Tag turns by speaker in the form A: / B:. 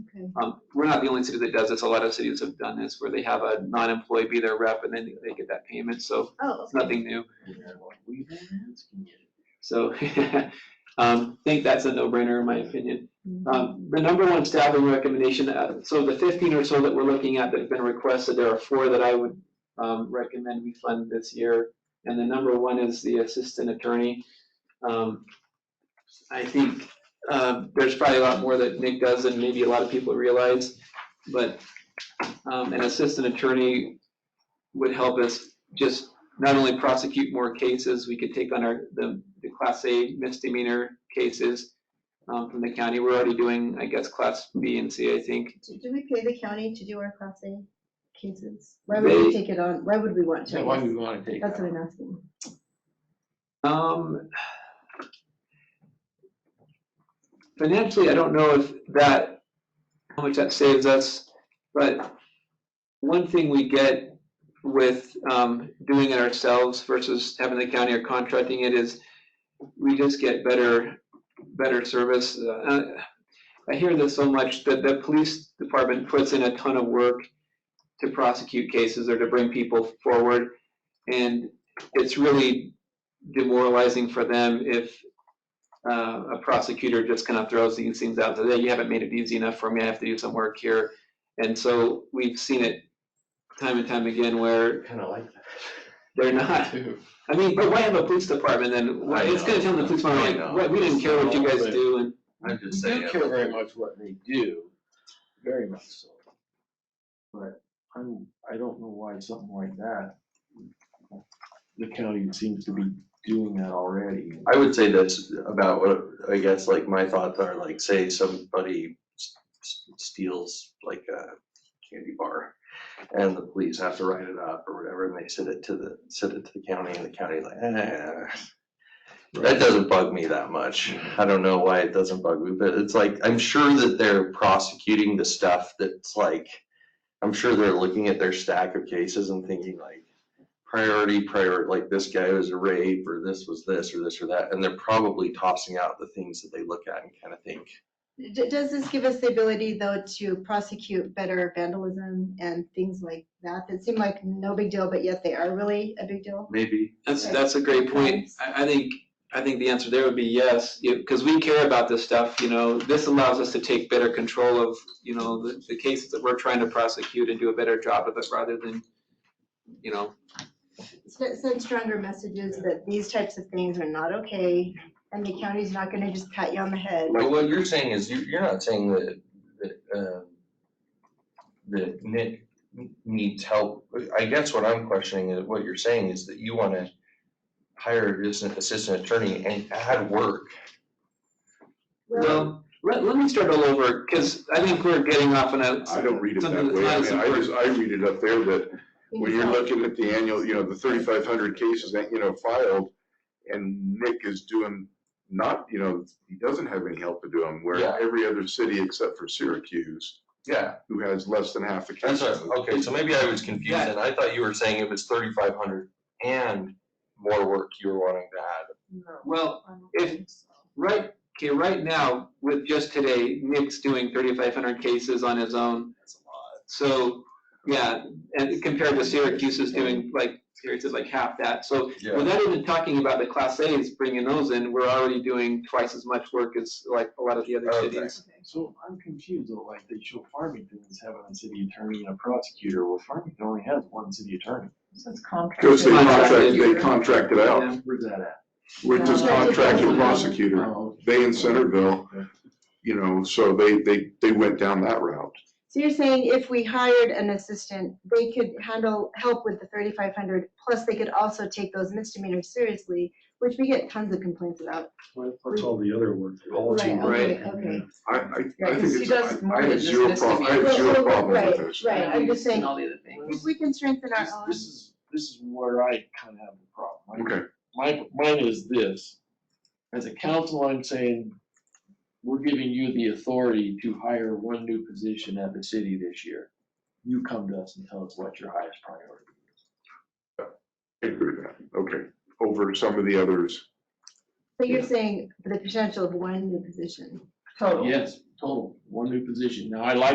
A: Um, We're not the only city that does this. A lot of cities have done this, where they have a non-employee be their rep and then they get that payment, so
B: Oh,
A: it's nothing new.
C: We've been asking you.
A: So, um, think that's a no-brainer in my opinion. Um, the number one staffing recommendation, uh, so the fifteen or so that we're looking at that have been requested, there are four that I would, um, recommend we fund this year. And the number one is the assistant attorney. Um, I think, uh, there's probably a lot more that Nick does than maybe a lot of people realize, but, um, an assistant attorney would help us just not only prosecute more cases, we could take on our, the, the class A misdemeanor cases um, from the county. We're already doing, I guess, class B and C, I think.
B: Do do we pay the county to do our Class A cases? Why would we
A: They-
B: take it on, why would we want to?
C: So
B: I
C: why
B: guess?
C: do we wanna take
B: That's
C: that?
B: what I'm asking.
A: Um, financially, I don't know if that, how much that saves us, but one thing we get with, um, doing it ourselves versus having the county or contracting it is we just get better, better service. Uh, I hear this so much that the police department puts in a ton of work to prosecute cases or to bring people forward. And it's really demoralizing for them if uh, a prosecutor just kind of throws these things out, that "Hey, you haven't made it easy enough for me, I have to do some work here. And so we've seen it time and time again where
C: Kinda like that.
A: they're not,
C: Too.
A: I mean, but why have a police department then? Why-
D: I
A: It's gonna tell the police
D: know, I
A: department, like,
D: know.
A: "What, we didn't care what you guys do and
D: I'm just
C: They
D: saying.
C: don't care very much what they do, very much so. But I'm, I don't know why something like that, the county seems to be doing that already.
D: I would say that's about what, I guess, like, my thoughts are, like, say somebody s- s- steals, like, a candy bar, and the police have to write it up or whatever, and they send it to the, send it to the county, and the county's like, eh. That doesn't bug me that much. I don't know why it doesn't bug me, but it's like, I'm sure that they're prosecuting the stuff that's like, I'm sure they're looking at their stack of cases and thinking like, priority, priority, like this guy was a rape, or this was this, or this or that, and they're probably tossing out the things that they look at and kind of think.
B: D- Does this give us the ability, though, to prosecute better vandalism and things like that that seem like no big deal, but yet they are really a big deal?
D: Maybe.
A: That's,
B: Right.
A: that's a great point.
B: Yes.
A: I, I think, I think the answer there would be yes, because we care about this stuff, you know. This allows us to take better control of, you know, the, the cases that we're trying to prosecute and do a better job of it rather than, you know,
B: S- Send stronger messages that these types of things are not okay, and the county's not gonna just pat you on the head.
D: But what you're saying is, you're, you're not saying that, that, um, that Nick needs help. I guess what I'm questioning is, what you're saying is that you wanna hire just an assistant attorney and add work.
B: Well,
A: well, let, let me start all over, because I think we're getting off on a.
E: I don't read it
A: something
E: that
A: that's
E: way.
A: not
E: I
A: as
E: mean,
A: important.
E: I just, I read it up there that when you're looking at the annual, you know, the thirty-five hundred cases that, you know, filed, and Nick is doing not, you know, he doesn't have any help to do them,
D: Yeah.
E: where every other city except for Syracuse,
D: Yeah,
E: who has less than half the
D: That's
E: cases.
D: right, okay, so maybe I was confused, and I thought you were saying it was thirty-five hundred and more work you were wanting to add.
A: Well, if-
B: Um,
A: Right, okay, right now, with just today, Nick's doing thirty-five hundred cases on his own. So, yeah, and compared to Syracuse is doing like, Syracuse is like half that, so
D: Yeah,
A: without even talking about the class A's, bringing those in, we're already doing twice as much work as like a lot of the other
D: Okay.
A: cities.
C: So I'm confused though, like they show Farmington as having a city attorney and a prosecutor, well Farmington only has one city attorney.
E: Because they contract, they
A: Contracted.
E: contract it out,
A: Yeah.
C: Where's that at?
E: which is contracted
B: Yeah.
E: prosecutor,
C: Oh,
E: they in Centerville, you know, so they, they, they went down that route.
B: So you're saying if we hired an assistant, they could handle, help with the thirty-five hundred, plus they could also take those misdemeanors seriously, which we get tons of complaints about.
F: That's all the other work. All
B: Right,
F: teamwork.
B: okay, okay.
E: I, I,
G: Yeah,
E: I
G: 'cause
E: think
G: he
E: it's,
G: does
E: I-
G: more
E: I
G: than
E: have
G: just
E: zero problem, I have
G: misdemeanors.
B: Well,
E: zero
B: well,
E: problem with
B: right,
E: this.
B: Right, I'm just saying,
G: And all the other things.
B: if we can strengthen our
C: This,
B: own.
C: this is, this is where I kind of have a problem.
E: Okay,
C: my, mine is this. As a council, I'm saying, we're giving you the authority to hire one new position at the city this year. You come to us and tell us what your highest priority.
E: I agree with that, okay, over some of the others.
B: So you're saying the potential of one new position.
C: Yes, total, one new position. Now, I like